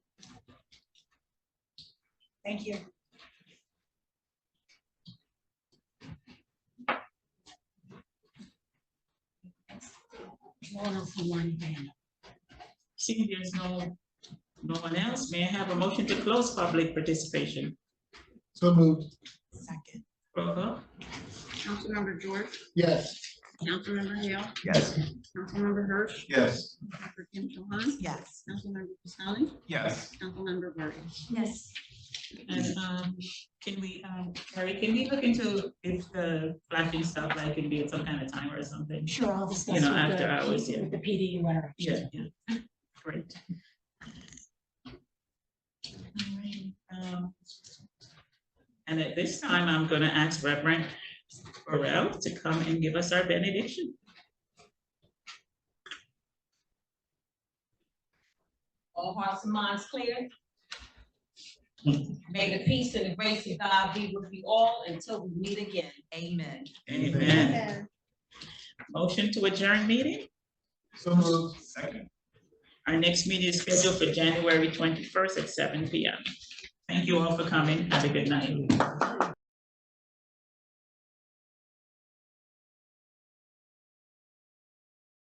Thank you. One for one hand. Seeing there's no, no one else, may I have a motion to close public participation? So moved, Second. Roll call. Councilmember George, yes. Councilmember Hale, Yes. Councilmember Hirsch, Yes. Dr. Kim Cho Han, Yes. Councilmember Pistonik, Yes. Councilmember Vargas. Yes. And um, can we, um, Carrie, can we look into if the flashing stuff like can be at some kind of timer or something? Sure, I'll discuss. You know, with after the- hours, yeah. With the PD or whatever. Yeah, yeah. Great. Alright, um, And at this time, I'm gonna ask Reverend Burrell to come and give us our benediction. All hearts and minds clear. May the peace and the grace of God be with you all until we meet again. Amen. Amen. Motion to adjourn meeting. So moved, Second. Our next meeting is scheduled for January twenty-first at seven P M. Thank you all for coming. Have a good night.